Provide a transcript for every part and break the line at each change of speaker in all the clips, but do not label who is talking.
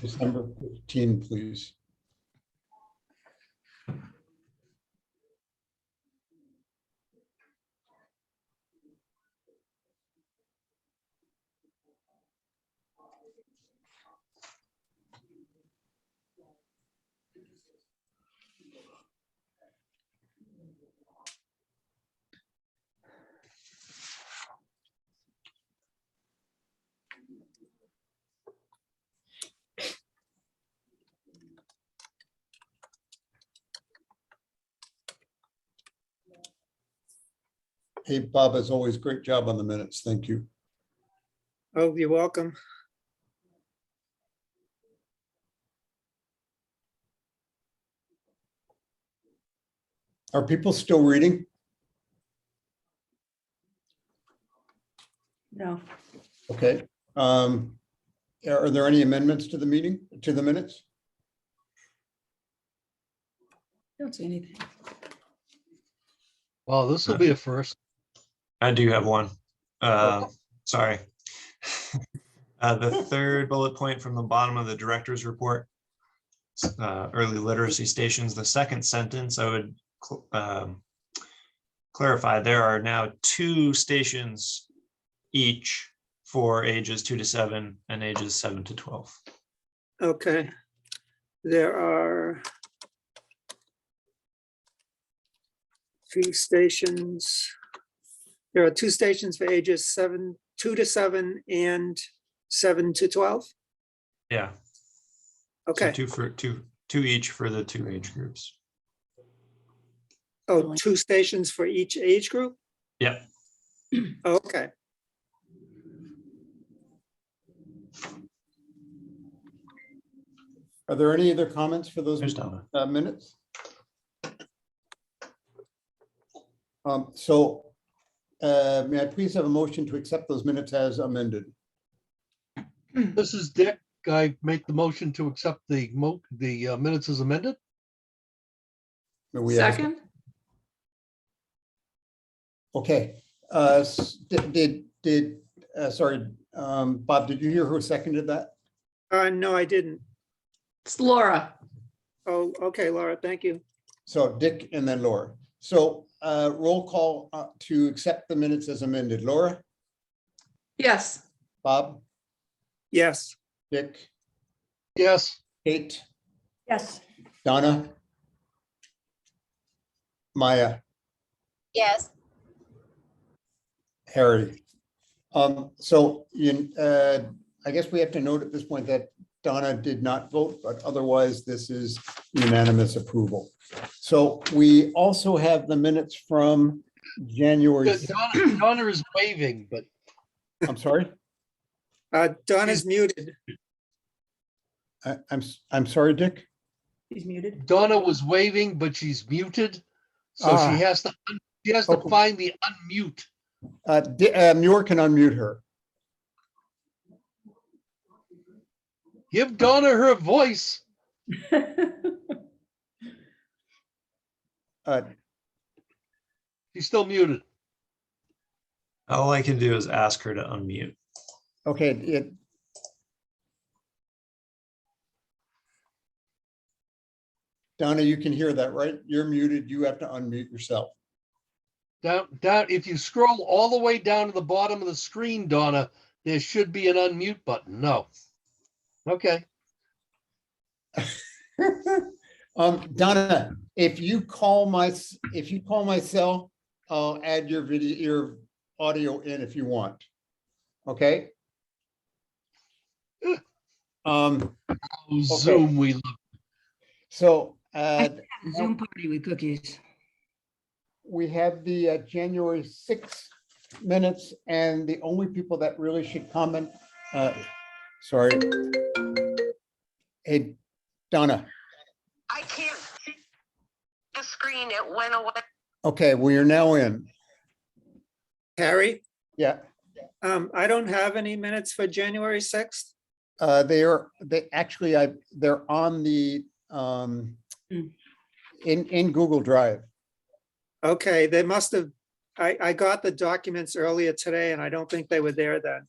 December 15, please. Hey, Bob, as always, great job on the minutes. Thank you.
Oh, you're welcome.
Are people still reading?
No,
Okay. um, Are are there any amendments to the meeting, to the minutes?
don't see anything.
Well, this will be a first.
I do have one. Uh, sorry. Uh, the third bullet point from the bottom of the director's report. s- Uh, early literacy stations, the second sentence, I would cl- um, clarify, there are now two stations each for ages two to seven and ages seven to twelve.
Okay. There are two stations. There are two stations for ages seven, two to seven and seven to 12.
Yeah. so
Okay.
Two for, two, two each for the two age groups.
Oh, two stations for each age group? Oh,
Yep.
Okay.
Are there any other comments for those
There's Donna.
uh, minutes? Um, So uh, may I please have a motion to accept those minutes as amended?
This is Dick. I make the motion to accept the mo, the uh, minutes as amended.
May we have a-
Second?
Okay, uh, s- did, did, did, uh, sorry, um, Bob, did you hear who seconded that?
Uh, no, I didn't.
It's Laura.
Oh, okay, Laura, thank you.
So Dick and then Laura. So uh, roll call uh, to accept the minutes as amended. Laura,
Yes,
Bob,
Yes.
Dick,
Yes,
Kate,
Yes.
Donna, Maya,
Yes.
Harry. Um, So you, uh, I guess we have to note at this point that Donna did not vote, but otherwise this is unanimous approval. So we also have the minutes from January,
Donna Donna is waving, but
I'm sorry,
Uh, Donna's muted.
I- I'm, s- I'm sorry, Dick.
he's muted.
Donna was waving, but she's muted. So
Ah.
she has to, un- she has to
Okay.
find the unmute.
Uh, Di- uh, Muir can unmute her.
Give Donna her voice.
Uh,
She's still muted.
All I can do is ask her to unmute.
Okay, it. Donna, you can hear that, right? You're muted. You have to unmute yourself.
Down, down, if you scroll all the way down to the bottom of the screen, Donna, there should be an unmute button. No. Okay,
Um, Donna, if you call my, s- if you call my cell, I'll add your video, your audio in if you want. Okay? Um,
Zoom, we love.
so, uh,
Zoom party with cookies.
we have the uh, January sixth minutes and the only people that really should comment, uh, sorry. Hey, Donna,
I can't see the screen. It went away.
okay, we are now in.
Harry,
Yeah,
um, I don't have any minutes for January 6th.
uh, they are, they actually, I, they're on the, um,
Mm.
in, in Google Drive.
Okay, they must have, I, I got the documents earlier today and I don't think they were there then.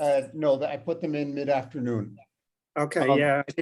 Uh, no, I put them in mid-afternoon.
Okay,
Um,
yeah, I think